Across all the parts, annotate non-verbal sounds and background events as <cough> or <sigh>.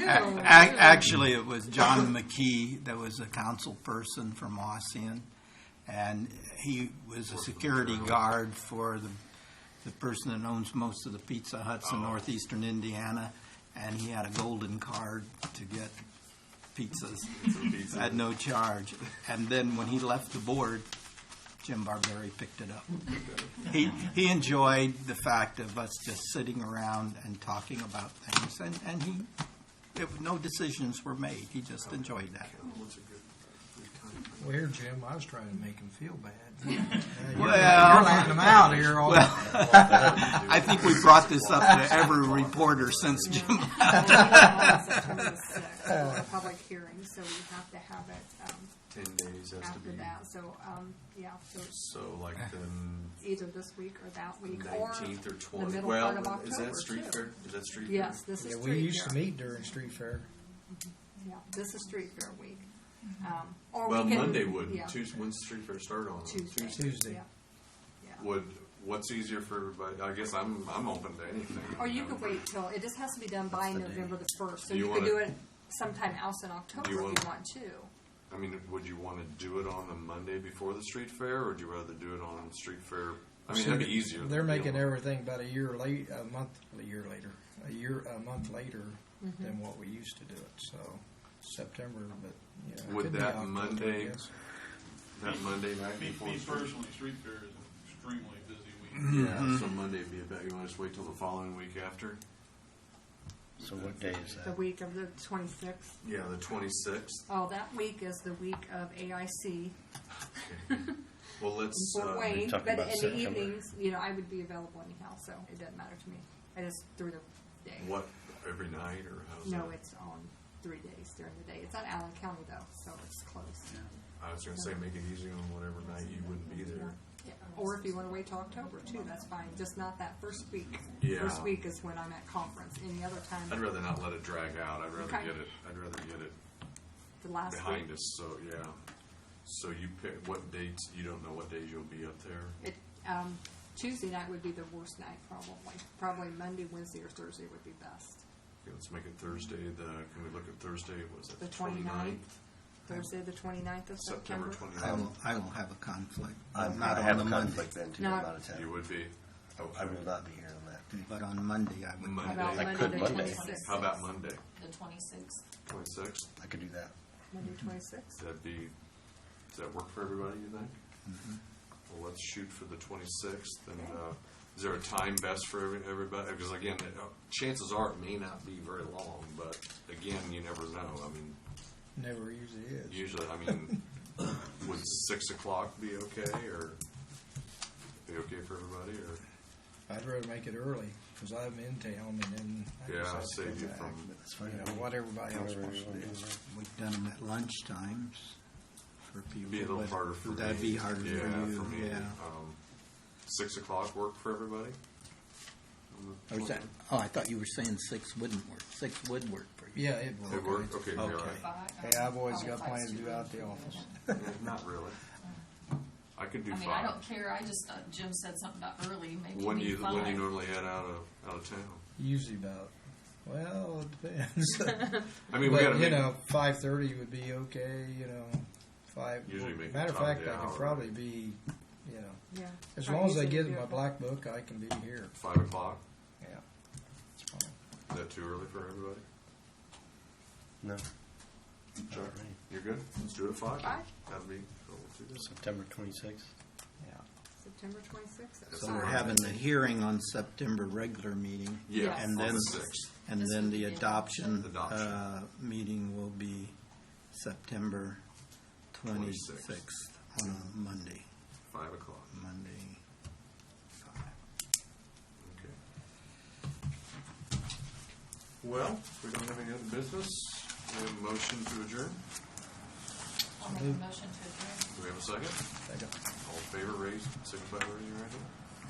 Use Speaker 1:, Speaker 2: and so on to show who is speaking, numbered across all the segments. Speaker 1: A- ac- Actually, it was John McKee that was a council person from Ossian, and he was a security guard for the, the person that owns most of the Pizza Huts in northeastern Indiana, and he had a golden card to get pizzas at no charge. And then when he left the board, Jim Barberry picked it up. He, he enjoyed the fact of us just sitting around and talking about things, and, and he, it- no decisions were made. He just enjoyed that.
Speaker 2: Well, here, Jim, I was trying to make him feel <laughs> bad. You're
Speaker 1: Well,
Speaker 2: letting him out here all the
Speaker 1: I think we brought this up to every reporter since Jim.
Speaker 3: <laughs> A public hearing, so we have to have it um,
Speaker 4: Ten days has to
Speaker 3: after
Speaker 4: be,
Speaker 3: that, so, um, yeah, so it's
Speaker 4: so like
Speaker 2: <sighs>
Speaker 4: the
Speaker 3: either this week or that week, or
Speaker 4: nineteenth or
Speaker 3: the
Speaker 4: twentieth.
Speaker 3: middle
Speaker 4: Well,
Speaker 3: part of
Speaker 4: is that street
Speaker 3: October,
Speaker 4: fair?
Speaker 3: too.
Speaker 4: Is that street? fair?
Speaker 3: Yes, this is
Speaker 2: Yeah,
Speaker 3: street fair.
Speaker 2: we used to meet during street fair.
Speaker 3: Yeah, this is street fair week. Um, Or
Speaker 4: Well,
Speaker 3: we can.
Speaker 4: Monday would,
Speaker 3: yeah,
Speaker 4: Tuesday, when's street fair start on?
Speaker 3: Tuesday.
Speaker 2: Tuesday.
Speaker 3: yeah, yeah.
Speaker 4: Would, what's easier for everybody? I guess I'm, I'm open to anything.
Speaker 3: Or you
Speaker 4: know.
Speaker 3: could wait till, it just has to be done by November the first, so
Speaker 4: Do you
Speaker 3: you could do
Speaker 4: wanna-
Speaker 3: it sometime else in October if you
Speaker 4: wanna-
Speaker 3: want to.
Speaker 4: I mean, would you wanna do it on the Monday before the street fair, or would you rather do it on street fair? I mean, that'd be easier.
Speaker 2: They're
Speaker 4: than
Speaker 2: making
Speaker 4: dealing-
Speaker 2: everything about a year late, a month, a year later, a year, a month later than what we used to do it, so September, but, you know. it
Speaker 4: Would
Speaker 2: could be
Speaker 4: that
Speaker 2: October, I
Speaker 4: Monday-
Speaker 2: guess.
Speaker 4: That Monday night
Speaker 5: Me,
Speaker 4: before.
Speaker 5: me
Speaker 4: the street fair?
Speaker 5: personally, street fair is an extremely busy week.
Speaker 2: Mm-hmm.
Speaker 4: Yeah, so Monday would be about, you wanna just wait till the following week after?
Speaker 6: So what day is
Speaker 3: The
Speaker 6: that?
Speaker 3: week of the twenty-sixth,
Speaker 4: Yeah, the twenty-sixth.
Speaker 3: oh, that week is the week of AIC,
Speaker 4: Well, let's,
Speaker 3: Fort
Speaker 4: uh,
Speaker 3: Wayne,
Speaker 6: talking
Speaker 3: but in
Speaker 6: about
Speaker 3: the
Speaker 6: September.
Speaker 3: evenings, you know, I would be available anyhow, so it doesn't matter to me. I just threw the day.
Speaker 4: what, every night, or how's that?
Speaker 3: No, it's on three days during the day. It's on Allen County though, so it's close.
Speaker 4: I was gonna say, make it easy on whatever night you wouldn't be there.
Speaker 3: Yeah. Or if you want to wait till October too, that's fine. Just not that first week.
Speaker 4: Yeah.
Speaker 3: First week is when I'm at conference. Any other time,
Speaker 4: I'd rather not let it drag out, I'd rather
Speaker 3: Okay.
Speaker 4: get it, I'd rather get it
Speaker 3: the last
Speaker 4: behind
Speaker 3: week.
Speaker 4: us, so, yeah. So you pick, what dates, you don't know what days you'll be up there?
Speaker 3: It, um, Tuesday night would be the worst night probably. Probably Monday, Wednesday, or Thursday would be best.
Speaker 4: Okay, let's make it Thursday, the, can we look at Thursday, was it
Speaker 3: The
Speaker 4: the
Speaker 3: 29th,
Speaker 4: twenty-ninth?
Speaker 3: Thursday the 29th of
Speaker 4: September
Speaker 1: I
Speaker 4: twenty-ninth,
Speaker 1: will, I will have a conflict.
Speaker 6: I'm,
Speaker 1: not
Speaker 6: I
Speaker 1: on
Speaker 6: have
Speaker 1: the
Speaker 6: a
Speaker 1: Monday,
Speaker 6: conflict then too,
Speaker 3: No.
Speaker 6: I'm out of
Speaker 4: you
Speaker 6: town.
Speaker 4: would be,
Speaker 6: Um, oh, I will not be here on that day.
Speaker 1: But on Monday, I would.
Speaker 3: How about
Speaker 4: Monday,
Speaker 6: I
Speaker 3: Monday
Speaker 6: could
Speaker 3: the
Speaker 6: Monday.
Speaker 3: 26th?
Speaker 4: how about Monday,
Speaker 7: the twenty-sixth.
Speaker 4: twenty-sixth,
Speaker 6: I could do that.
Speaker 3: Monday 26th?
Speaker 4: that'd be, does that work for everybody, you think?
Speaker 1: Mm-hmm.
Speaker 4: Well, let's shoot for the twenty-sixth, and, uh, is there a time best for every, everybody, because again, uh, chances are it may not be very long, but again, you never know, I mean,
Speaker 2: Never usually is.
Speaker 4: Usually,
Speaker 1: <coughs>
Speaker 4: I mean, would six o'clock be okay, or be okay for everybody, or
Speaker 2: I'd rather make it early, because I'm in town and then. I
Speaker 4: Yeah,
Speaker 2: just
Speaker 4: I'll
Speaker 2: have to
Speaker 4: save
Speaker 2: come
Speaker 4: you
Speaker 2: back,
Speaker 4: from-
Speaker 2: but, You know, what everybody else wants to do.
Speaker 1: We've done them at lunchtimes for people.
Speaker 4: be a little
Speaker 1: but
Speaker 4: harder for me?
Speaker 1: would That'd be harder for you,
Speaker 4: Yeah, me.
Speaker 1: yeah.
Speaker 4: Um, Six o'clock work for everybody?
Speaker 1: Or is that, oh, I thought you were saying six wouldn't work. Six would work for you.
Speaker 2: Yeah, it worked.
Speaker 4: It worked, okay, you're all
Speaker 2: Okay.
Speaker 4: right.
Speaker 2: Hey,
Speaker 7: Um,
Speaker 2: I've always got plans to do out the office.
Speaker 4: Yeah, <laughs> Not really. I could do
Speaker 7: Uh, I mean, I
Speaker 4: five.
Speaker 7: don't care, I just thought Jim said something about early, maybe
Speaker 4: When do
Speaker 7: it'd
Speaker 4: you,
Speaker 7: be five.
Speaker 4: when do you normally head out of, out of town?
Speaker 2: Usually about, well, it depends.
Speaker 4: I mean, <laughs> we
Speaker 2: but,
Speaker 4: gotta
Speaker 2: you
Speaker 4: make,
Speaker 2: know, five thirty would be okay. You know, five.
Speaker 4: Usually make
Speaker 2: matter of
Speaker 4: the top
Speaker 2: fact,
Speaker 4: of the
Speaker 2: I could
Speaker 4: hour.
Speaker 2: probably be, you know,
Speaker 3: Yeah.
Speaker 2: as
Speaker 3: Right,
Speaker 2: long as I
Speaker 3: usually
Speaker 2: get
Speaker 3: we do
Speaker 2: my
Speaker 3: it.
Speaker 2: black book, I can be here.
Speaker 4: five o'clock,
Speaker 2: Yeah, it's fine.
Speaker 4: is that too early for everybody?
Speaker 6: No,
Speaker 4: Sure.
Speaker 6: right.
Speaker 4: You're good, let's do it at five.
Speaker 3: Five?
Speaker 4: That'd be, let's Oh, do that.
Speaker 6: September twenty-sixth.
Speaker 2: Yeah,
Speaker 3: September 26th?
Speaker 4: So
Speaker 1: So we're
Speaker 4: Right.
Speaker 1: having the hearing on September regular meeting.
Speaker 4: Yeah,
Speaker 3: Yes.
Speaker 1: And
Speaker 4: on
Speaker 1: then,
Speaker 4: the sixth.
Speaker 1: and
Speaker 7: This
Speaker 1: then
Speaker 7: would
Speaker 1: the
Speaker 7: be the
Speaker 1: adoption,
Speaker 4: adoption.
Speaker 1: uh, meeting will be September
Speaker 4: 26th.
Speaker 1: twenty-sixth on a Monday,
Speaker 4: Five o'clock.
Speaker 1: Monday.
Speaker 4: Okay. Well, if we don't have any other business, we have a motion to adjourn.
Speaker 7: I'll make a motion to adjourn.
Speaker 4: Do we have a second?
Speaker 2: I don't. Mm-hmm.
Speaker 4: All in favor, raise, signify by raising your right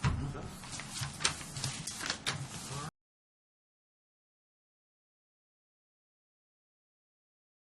Speaker 4: hand. Okay.